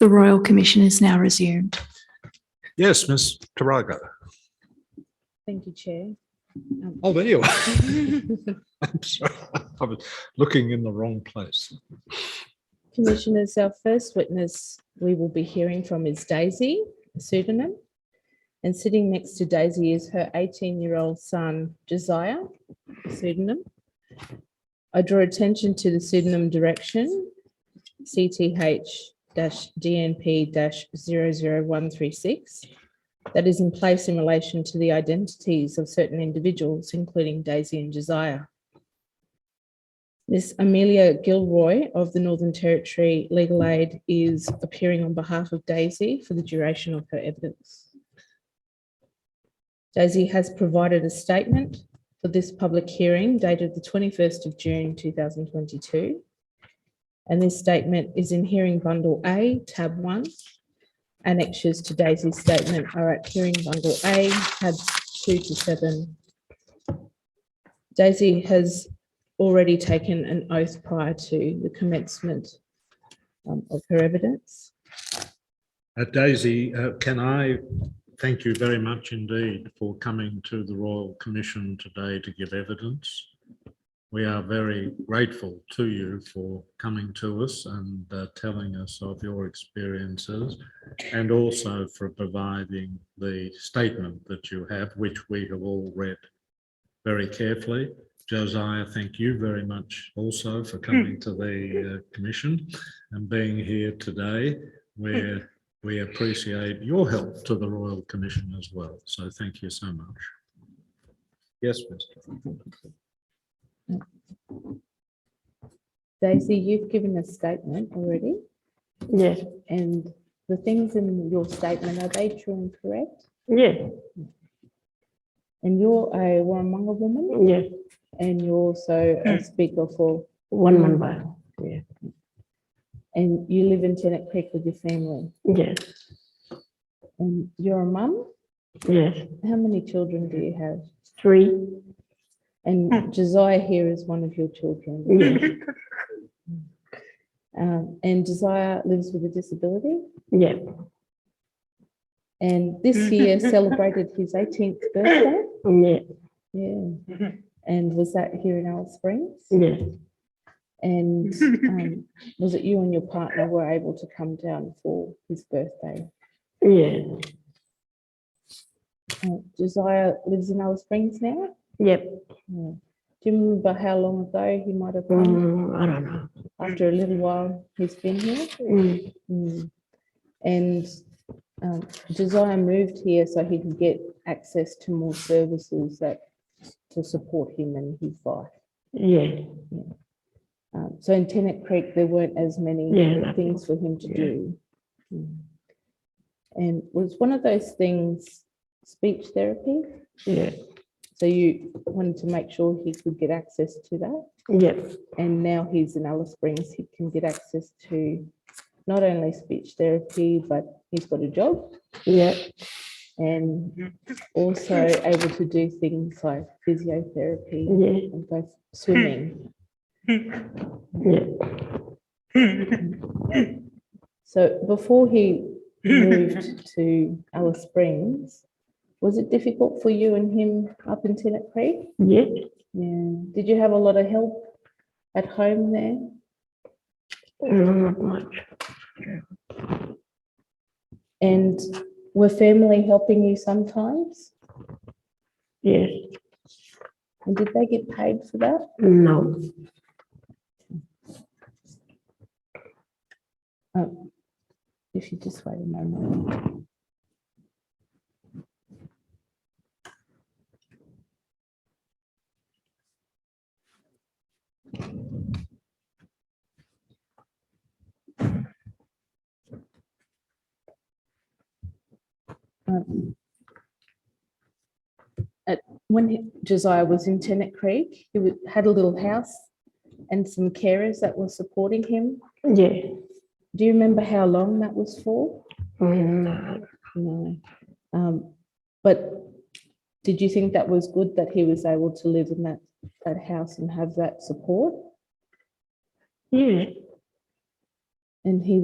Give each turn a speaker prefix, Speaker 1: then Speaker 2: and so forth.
Speaker 1: The Royal Commission is now resumed.
Speaker 2: Yes, Ms. Tarago.
Speaker 3: Thank you, Chair. Um,
Speaker 2: Oh, there you are. I'm sorry. I was looking in the wrong place.
Speaker 3: Commissioners, our first witness we will be hearing from is Daisy, a pseudonym. And sitting next to Daisy is her 18-year-old son, Josiah, a pseudonym. I draw attention to the pseudonym direction, CTH-DNP-00136, that is in place in relation to the identities of certain individuals, including Daisy and Josiah. Miss Amelia Gilroy of the Northern Territory Legal Aid is appearing on behalf of Daisy for the duration of her evidence. Daisy has provided a statement for this public hearing dated the 21st of June 2022. And this statement is in hearing bundle A, tab 1. Annexures to Daisy's statement are at hearing bundle A, tabs 2 to 7. Daisy has already taken an oath prior to the commencement um, of her evidence.
Speaker 2: Uh, Daisy, uh, can I thank you very much indeed for coming to the Royal Commission today to give evidence? We are very grateful to you for coming to us and uh, telling us of your experiences and also for providing the statement that you have, which we have all read very carefully. Josiah, thank you very much also for coming to the uh, commission and being here today where we appreciate your help to the Royal Commission as well. So thank you so much. Yes, Mr.
Speaker 3: Daisy, you've given a statement already,
Speaker 4: Yes,
Speaker 3: and the things in your statement, are they true and correct?
Speaker 4: yes,
Speaker 3: And you're a Warramunga woman,
Speaker 4: yes,
Speaker 3: and you're also a speaker for,
Speaker 4: one member, yes,
Speaker 3: and you live in Tennant Creek with your family,
Speaker 4: yes,
Speaker 3: and you're a mum?
Speaker 4: yes,
Speaker 3: How many children do you have?
Speaker 4: three,
Speaker 3: And Josiah here is one of your children.
Speaker 4: yes,
Speaker 3: Um, and Desire lives with a disability.
Speaker 4: yes,
Speaker 3: And this year celebrated his 18th birthday.
Speaker 4: yes,
Speaker 3: Yeah. And was that here in Alice Springs?
Speaker 4: yes,
Speaker 3: And um, was it you and your partner were able to come down for his birthday?
Speaker 4: yes,
Speaker 3: Uh, Josiah lives in Alice Springs now.
Speaker 4: yep,
Speaker 3: Yeah. Do you remember how long ago he might have come?
Speaker 4: mm, I don't know.
Speaker 3: After a little while, he's been here.
Speaker 4: Mm,
Speaker 3: Mm. And um, Josiah moved here so he could get access to more services that to support him and his life.
Speaker 4: Yes,
Speaker 3: Um, so in Tennant Creek, there weren't as many
Speaker 4: Yeah, nothing.
Speaker 3: things for him to
Speaker 4: Yeah.
Speaker 3: do. Mm. And was one of those things speech therapy?
Speaker 4: yes,
Speaker 3: So you wanted to make sure he could get access to that.
Speaker 4: yep,
Speaker 3: And now he's in Alice Springs, he can get access to not only speech therapy, but he's got a job.
Speaker 4: yep,
Speaker 3: and also able to do things like physiotherapy
Speaker 4: yes,
Speaker 3: and go swimming.
Speaker 4: yes,
Speaker 3: So before he moved to Alice Springs, was it difficult for you and him up in Tennant Creek?
Speaker 4: yes,
Speaker 3: Yeah. Did you have a lot of help at home there?
Speaker 4: mm, not much,
Speaker 3: And were family helping you sometimes?
Speaker 4: yes,
Speaker 3: And did they get paid for that?
Speaker 4: no,
Speaker 3: Um, If you just wait a moment. Um, At, when he- Josiah was in Tennant Creek, he wa- had a little house and some carers that were supporting him.
Speaker 4: yes,
Speaker 3: Do you remember how long that was for?
Speaker 4: mm, no,
Speaker 3: No. Um, but did you think that was good that he was able to live in that, that house and have that support?
Speaker 4: yes.
Speaker 3: And he